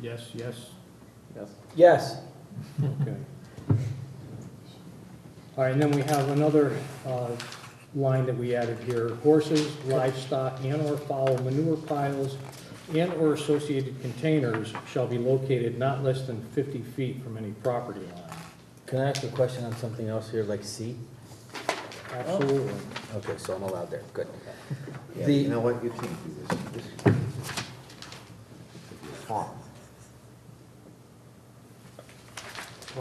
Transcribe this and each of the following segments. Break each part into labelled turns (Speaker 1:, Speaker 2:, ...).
Speaker 1: Yes, yes.
Speaker 2: Yes.
Speaker 3: Yes.
Speaker 2: Okay. All right, and then we have another uh, line that we added here, horses, livestock, and/or fowl manure piles and/or associated containers shall be located not less than 50 feet from any property line.
Speaker 3: Can I ask a question on something else here, like C?
Speaker 2: Absolutely.
Speaker 3: Okay, so I'm allowed there, good.
Speaker 4: Yeah,
Speaker 3: The-
Speaker 4: You know what, you can't do this, this. You're farm.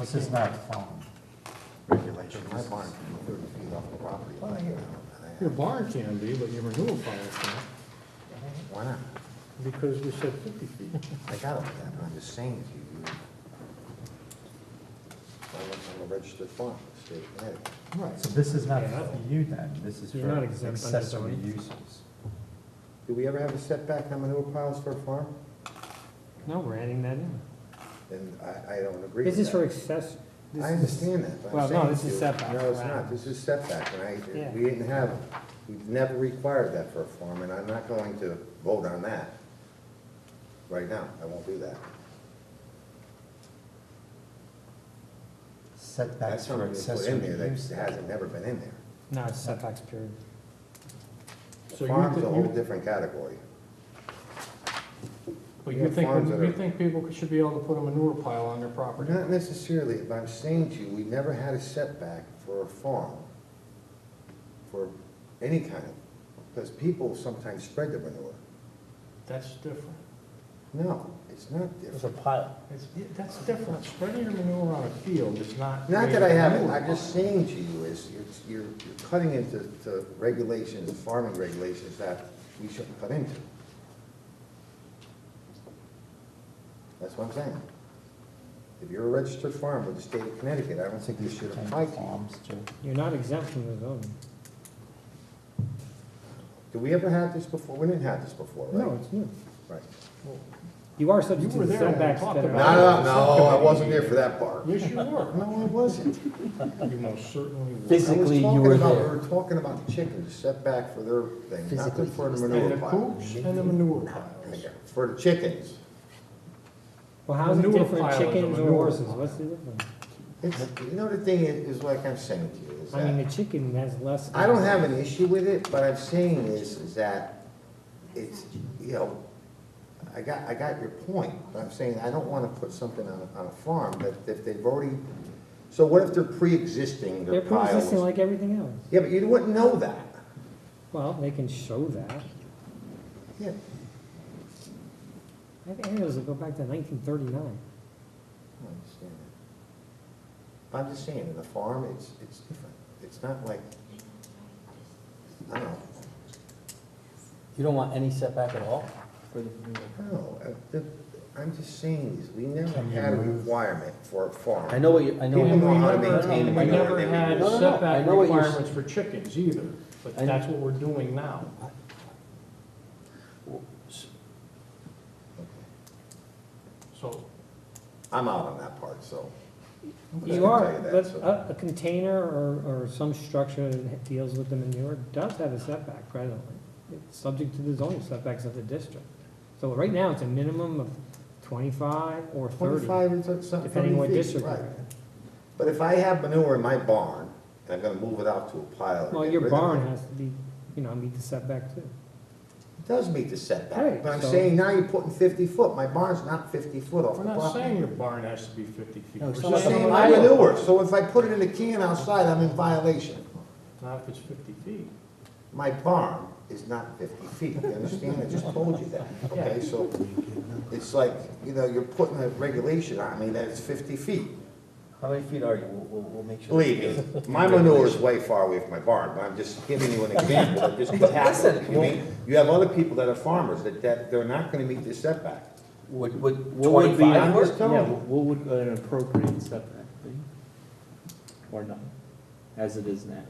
Speaker 5: This is not farm.
Speaker 4: Regulation, my barn can be thirty feet off the property line. you know, and
Speaker 1: Your barn can be, but your renewal policy can't,
Speaker 4: I- Why not?
Speaker 1: because we said fifty feet.
Speaker 4: I got it, with that, but I'm just saying to you, you. I live on a registered farm, in the state of Connecticut.
Speaker 1: Right.
Speaker 5: So this is not for you then, this is
Speaker 1: You're not
Speaker 5: for
Speaker 1: exempt under
Speaker 5: accessory
Speaker 1: zoning.
Speaker 5: uses.
Speaker 4: Do we ever have a setback on manure piles for a farm?
Speaker 1: No, we're adding that in.
Speaker 4: Then I, I don't agree
Speaker 1: This
Speaker 4: with that.
Speaker 1: is for access. this
Speaker 4: I
Speaker 1: is-
Speaker 4: understand that, but
Speaker 1: Well,
Speaker 4: I'm
Speaker 1: no,
Speaker 4: saying
Speaker 1: this
Speaker 4: to
Speaker 1: is
Speaker 4: you-
Speaker 1: setback,
Speaker 4: No, it's
Speaker 1: right.
Speaker 4: not, this is setback, and
Speaker 1: Yeah.
Speaker 4: I, we didn't have, we've never required that for a farm, and I'm not going to vote on that right now, I won't do that. That's
Speaker 5: Setbacks for
Speaker 4: something we put in
Speaker 5: accessory
Speaker 4: there that
Speaker 5: uses.
Speaker 4: hasn't never been in there.
Speaker 1: No, it's setbacks period. So you
Speaker 4: Farm's
Speaker 1: thi-
Speaker 4: a whole
Speaker 1: you-
Speaker 4: different category.
Speaker 1: But
Speaker 4: you
Speaker 1: you
Speaker 4: have
Speaker 1: think,
Speaker 4: farms that
Speaker 1: you
Speaker 4: are-
Speaker 1: think people should be able to put a manure pile on their property?
Speaker 4: Not necessarily, but I'm saying to you, we never had a setback for a farm, for any kind of, because people sometimes spread their manure.
Speaker 1: That's different.
Speaker 4: No, it's not different.
Speaker 3: There's a pile.
Speaker 1: It's, that's different. Spreading your manure on a field is not.
Speaker 4: Not that
Speaker 1: creating
Speaker 4: I
Speaker 1: a
Speaker 4: haven't,
Speaker 1: manure
Speaker 4: I'm just
Speaker 1: pile.
Speaker 4: saying to you is, it's- you're, you're cutting into to regulations, farming regulations that we shouldn't cut into. That's what I'm saying. If you're a registered farm with the state of Connecticut, I don't think this should apply to you.
Speaker 5: Farms too.
Speaker 6: You're not exempt from the zoning.
Speaker 4: Did we ever have this before? We didn't have this before, right?
Speaker 1: No, it's new.
Speaker 4: Right.
Speaker 6: You are
Speaker 1: You
Speaker 6: subject to
Speaker 1: were
Speaker 6: the
Speaker 1: there when we
Speaker 6: setbacks
Speaker 1: talked
Speaker 6: that
Speaker 1: about
Speaker 6: are.
Speaker 1: it.
Speaker 4: No, no, I wasn't there for that part.
Speaker 1: Yes, you were.
Speaker 4: No, I wasn't.
Speaker 1: You most certainly were.
Speaker 4: I was
Speaker 3: Physically, you
Speaker 4: talking
Speaker 3: were
Speaker 4: about-
Speaker 3: there.
Speaker 4: We were talking about the chickens, setback for their thing, not
Speaker 3: Physically,
Speaker 4: for
Speaker 3: he was
Speaker 4: the
Speaker 1: And
Speaker 4: manure
Speaker 1: the
Speaker 4: pile.
Speaker 1: poops and the manure piles.
Speaker 4: For the chickens.
Speaker 6: Well, how's it
Speaker 1: Manure
Speaker 6: different
Speaker 1: pile is a
Speaker 6: chickens or
Speaker 1: manure
Speaker 6: horses?
Speaker 1: pile.
Speaker 6: What's the difference?
Speaker 4: It's, you know, the thing is, is like I'm saying to you, is
Speaker 6: I mean,
Speaker 4: that,
Speaker 6: the chicken has less.
Speaker 4: I don't have an issue with it, but I'm saying is, is that it's, you know, I got, I got your point, but I'm saying I don't wanna put something on, a- on a farm that if they've already, so what if they're pre-existing,
Speaker 6: They're
Speaker 4: their piles?
Speaker 6: pre-existing like everything else.
Speaker 4: Yeah, but you wouldn't know that.
Speaker 6: Well, they can show that.
Speaker 4: Yeah,
Speaker 6: I have aerials that go back to nineteen thirty-nine.
Speaker 4: I understand that. I'm just saying, in a farm, it's, it's different. It's not like, I don't know,
Speaker 3: You don't want any setback at all?
Speaker 4: No, uh, the- I'm just saying this, we never
Speaker 5: Can you
Speaker 4: had a
Speaker 5: move?
Speaker 4: requirement for a farm.
Speaker 3: I know what you, I know. what
Speaker 1: And
Speaker 4: People
Speaker 1: we
Speaker 3: you-
Speaker 4: know how to
Speaker 1: never-
Speaker 4: maintain the
Speaker 1: We
Speaker 4: manure
Speaker 1: never
Speaker 4: they
Speaker 1: had
Speaker 3: use. No, no, no, I
Speaker 1: setback
Speaker 3: know what you're s-
Speaker 1: requirements for chickens either, but
Speaker 3: I-
Speaker 1: that's what we're doing now. So
Speaker 4: I'm out on that part, so. I'm just
Speaker 6: You
Speaker 4: gonna
Speaker 6: are,
Speaker 4: tell you that,
Speaker 6: but uh,
Speaker 4: so-
Speaker 6: a, a container or, or some structure that deals with the manure does have a setback presently. It's subject to the zoning setbacks of the district. So right now, it's a minimum of twenty-five or thirty.
Speaker 4: Twenty-five is something, thirty feet.
Speaker 6: Depending what district
Speaker 4: right.
Speaker 6: you're in.
Speaker 4: But if I have manure in my barn, and I'm gonna move it out to a pile. and
Speaker 6: Well,
Speaker 4: get
Speaker 6: your
Speaker 4: rid of
Speaker 6: barn
Speaker 4: it,
Speaker 6: has to be, you know, meet the setback too.
Speaker 4: It does meet the setback,
Speaker 6: Right,
Speaker 4: but I'm
Speaker 6: so-
Speaker 4: saying now you're putting fifty foot, my barn's not fifty foot off
Speaker 1: we're
Speaker 4: the
Speaker 1: not
Speaker 4: property.
Speaker 1: saying your barn has to be fifty feet.
Speaker 3: No,
Speaker 1: We're
Speaker 3: it's
Speaker 4: I'm
Speaker 1: just
Speaker 4: saying
Speaker 1: saying
Speaker 4: my manure, so if I put it in a can outside, I'm in violation.
Speaker 1: Not if it's fifty feet.
Speaker 4: My barn is not 50 feet, you understand? I just told you that, okay? So it's like, you know, you're putting a regulation on me that it's 50 feet.
Speaker 3: How many feet are you? We'll, we'll, we'll make sure.
Speaker 4: Believe me, my manure is way far away from my barn, but I'm just giving you an example of just what
Speaker 3: Listen,
Speaker 4: happened. You mean, you have other people that are farmers that, that they're not gonna meet the setback.
Speaker 3: Would, would, what would be,
Speaker 4: I'm just
Speaker 3: yeah,
Speaker 4: telling
Speaker 7: Yeah,
Speaker 4: you.
Speaker 7: but what would
Speaker 3: uh,
Speaker 7: an appropriate setback be? Or not, as it is now?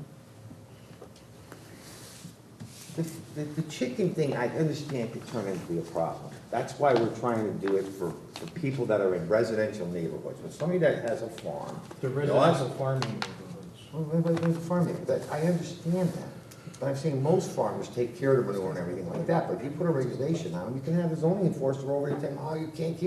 Speaker 4: The, the- the chicken thing, I understand could turn into be a problem. That's why we're trying to do it for, for people that are in residential neighborhoods. But somebody that has a farm,
Speaker 1: The
Speaker 4: you know, us-
Speaker 1: residential farming neighborhoods.
Speaker 4: Well, what about the farming, that, I understand that, but I'm saying most farmers take care of the manure and everything like that, but if you put a regulation on them, you can have a zoning enforcer over there tell them, oh, you can't keep